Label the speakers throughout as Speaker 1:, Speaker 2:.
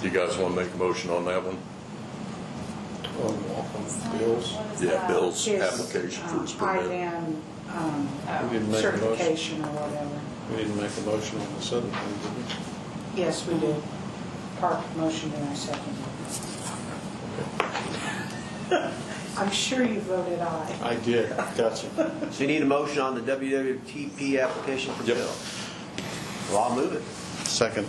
Speaker 1: Do you guys want to make a motion on that one?
Speaker 2: What
Speaker 3: bills.
Speaker 2: is
Speaker 1: Yeah,
Speaker 2: that?
Speaker 1: bills,
Speaker 3: His,
Speaker 1: application for his
Speaker 3: um,
Speaker 1: permit.
Speaker 3: IDAM, um,
Speaker 2: Oh.
Speaker 4: We didn't make a motion,
Speaker 3: certification or whatever.
Speaker 4: we didn't make a motion on the seven, did we?
Speaker 3: Yes, we did. Park motion and I second. I'm sure you voted aye.
Speaker 4: I did, gotcha.
Speaker 5: So you need a motion on the WWTP application for
Speaker 1: Yep.
Speaker 5: Bill? Well, I'll move it.
Speaker 4: Second.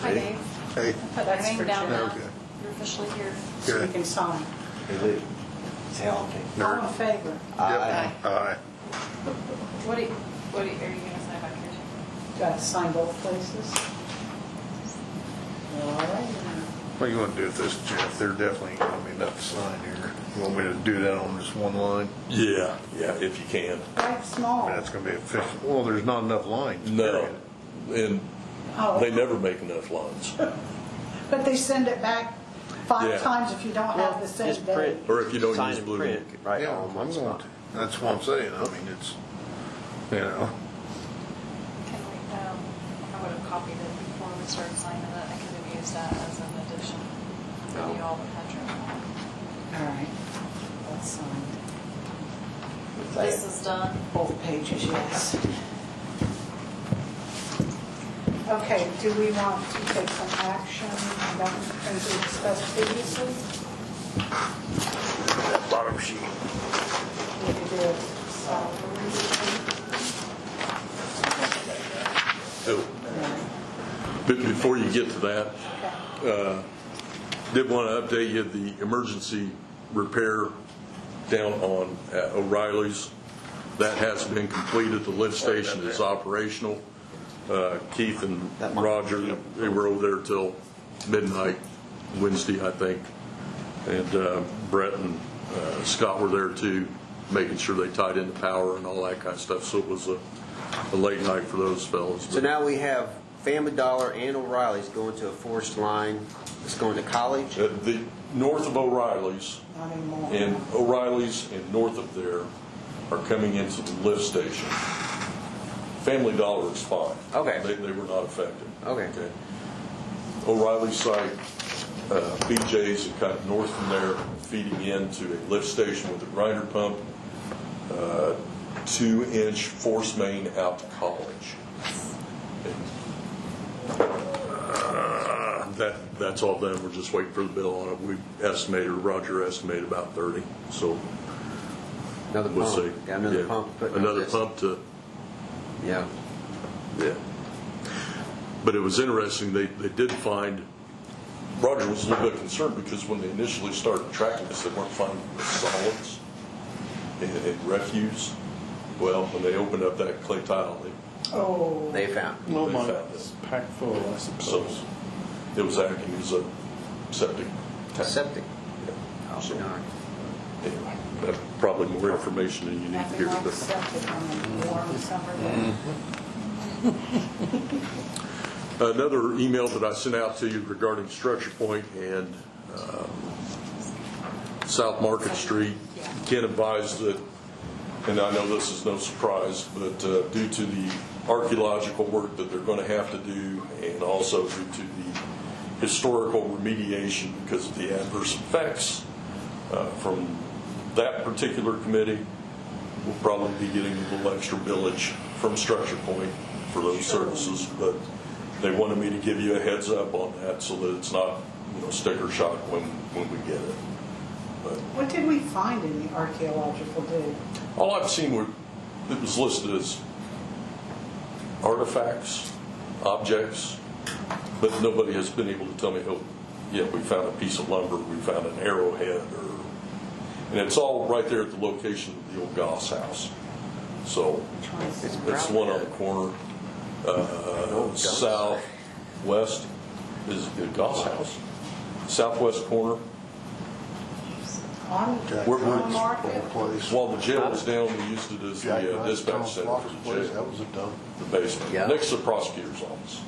Speaker 2: Hi, Dave.
Speaker 6: Hey,
Speaker 2: Put that name down now.
Speaker 6: Okay.
Speaker 2: You're officially here.
Speaker 3: So you
Speaker 6: good.
Speaker 3: can sign.
Speaker 5: Is it? Say all in favor?
Speaker 3: All in favor?
Speaker 5: Aye.
Speaker 6: Yep. Aye.
Speaker 2: What do you, what do you, are you gonna sign back here?
Speaker 3: Do I sign both places? All right.
Speaker 6: What are you gonna do with this, Jeff? There definitely ain't gonna be enough to sign here. You want me to do that on this one line?
Speaker 1: Yeah, yeah, if you can.
Speaker 3: Quite small.
Speaker 6: That's gonna be efficient. Well, there's not enough lines.
Speaker 1: No,
Speaker 6: period.
Speaker 1: and
Speaker 3: Oh,
Speaker 1: they never make enough lines.
Speaker 3: But they send it back
Speaker 1: Yeah.
Speaker 3: five times if you don't have the same
Speaker 5: Just
Speaker 3: day.
Speaker 5: print.
Speaker 1: Or if you don't
Speaker 5: Sign
Speaker 1: use
Speaker 5: and
Speaker 1: blue
Speaker 5: print,
Speaker 1: book.
Speaker 5: Right,
Speaker 6: Yeah,
Speaker 5: all in
Speaker 6: I'm
Speaker 5: one
Speaker 6: going
Speaker 5: spot.
Speaker 6: to. That's what I'm saying. I mean, it's, you know,
Speaker 2: Can we, um, I would have copied it before we started signing it. I could have used that as an addition. Maybe you all would have your own.
Speaker 3: All right. That's signed.
Speaker 2: This is done.
Speaker 3: Both pages, yes. Okay, do we want to take some action about things we discussed previously?
Speaker 6: that bottom sheet.
Speaker 3: We could do it salary.
Speaker 1: Oh, But before you get to that, uh,
Speaker 3: Okay.
Speaker 1: did want to update you, the emergency repair down on uh, O'Reilly's, that has been completed, the lift station is operational. Uh, Keith and
Speaker 5: That one.
Speaker 1: Roger, they were over there till midnight Wednesday, I think. And uh, Brett and uh, Scott were there too, making sure they tied in the power and all that kind of stuff, so it was a a late night for those fellows.
Speaker 5: So now we have Family Dollar and O'Reilly's going to a forced line, it's going to college.
Speaker 1: Uh, The, north of O'Reilly's,
Speaker 3: Not anymore.
Speaker 1: and O'Reilly's and north of there are coming into the lift station. Family Dollar is fine.
Speaker 5: Okay.
Speaker 1: They, they were not affected.
Speaker 5: Okay.
Speaker 1: O'Reilly's site, uh, BJ's and kind of north from there, feeding into a lift station with a grinder pump, uh, two-inch force main out to college. Uh, That, that's all done, we're just waiting for the bill on it. We estimated, Roger estimated about 30, so
Speaker 5: Another
Speaker 1: we'll see.
Speaker 5: pump. Got Oh, another
Speaker 1: Yeah.
Speaker 5: pump. to put in
Speaker 1: Another
Speaker 5: this.
Speaker 1: pump to,
Speaker 5: Yeah.
Speaker 1: yeah. But it was interesting, they, they did find, Roger was a little bit concerned because when they initially started tracking this, they weren't finding the solids and- and refuse. Well, when they opened up that clay tile, they-
Speaker 3: Oh,
Speaker 5: They found.
Speaker 4: Well,
Speaker 1: They
Speaker 4: mine
Speaker 1: found
Speaker 4: is packed full, I
Speaker 1: so
Speaker 4: suppose.
Speaker 1: it was acting as a septic tank.
Speaker 5: Septic.
Speaker 1: Yeah.
Speaker 5: Oh,
Speaker 1: So,
Speaker 5: darn.
Speaker 1: anyway, that's Probably more information than you need
Speaker 3: nothing
Speaker 1: here,
Speaker 3: like
Speaker 1: but.
Speaker 3: septic on a
Speaker 1: Mm-hmm.
Speaker 3: warm summer day.
Speaker 1: Another email that I sent out to you regarding Structure Point and um, South Market Street. Ken advised that, and I know this is no surprise, but uh, due to the archaeological work that they're going to have to do, and also due to the historical remediation because of the adverse effects uh, from that particular committee, we'll probably be getting a little extra village from Structure Point for those services, but they wanted me to give you a heads up on that so that it's not, you know, sticker shock when, when we get it.
Speaker 3: What did we find in the archaeological dig?
Speaker 1: All I've seen were, it was listed as artifacts, objects, but nobody has been able to tell me, oh, yeah, we found a piece of lumber, we found an arrowhead, or, and it's all right there at the location of the old Goss house. So,
Speaker 3: Which one is it?
Speaker 1: it's the one on the corner, uh, southwest is the Goss house, southwest corner.
Speaker 3: On
Speaker 1: We're- we're-
Speaker 3: on market?
Speaker 6: place.
Speaker 1: While the jail was down, we used it as
Speaker 6: Jack
Speaker 1: the uh,
Speaker 6: Ryan's
Speaker 1: dispatch
Speaker 6: Thomas
Speaker 1: center
Speaker 6: Walker's
Speaker 1: for the
Speaker 6: place,
Speaker 1: jail.
Speaker 6: was a dump.
Speaker 1: the basement,
Speaker 5: Yeah.
Speaker 1: next to the prosecutor's office.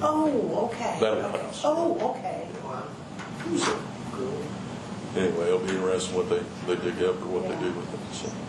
Speaker 3: Oh, okay.
Speaker 1: That old house.
Speaker 3: Oh, okay.
Speaker 1: Anyway, it'll be interesting what they, they dig up or what they do with it, so.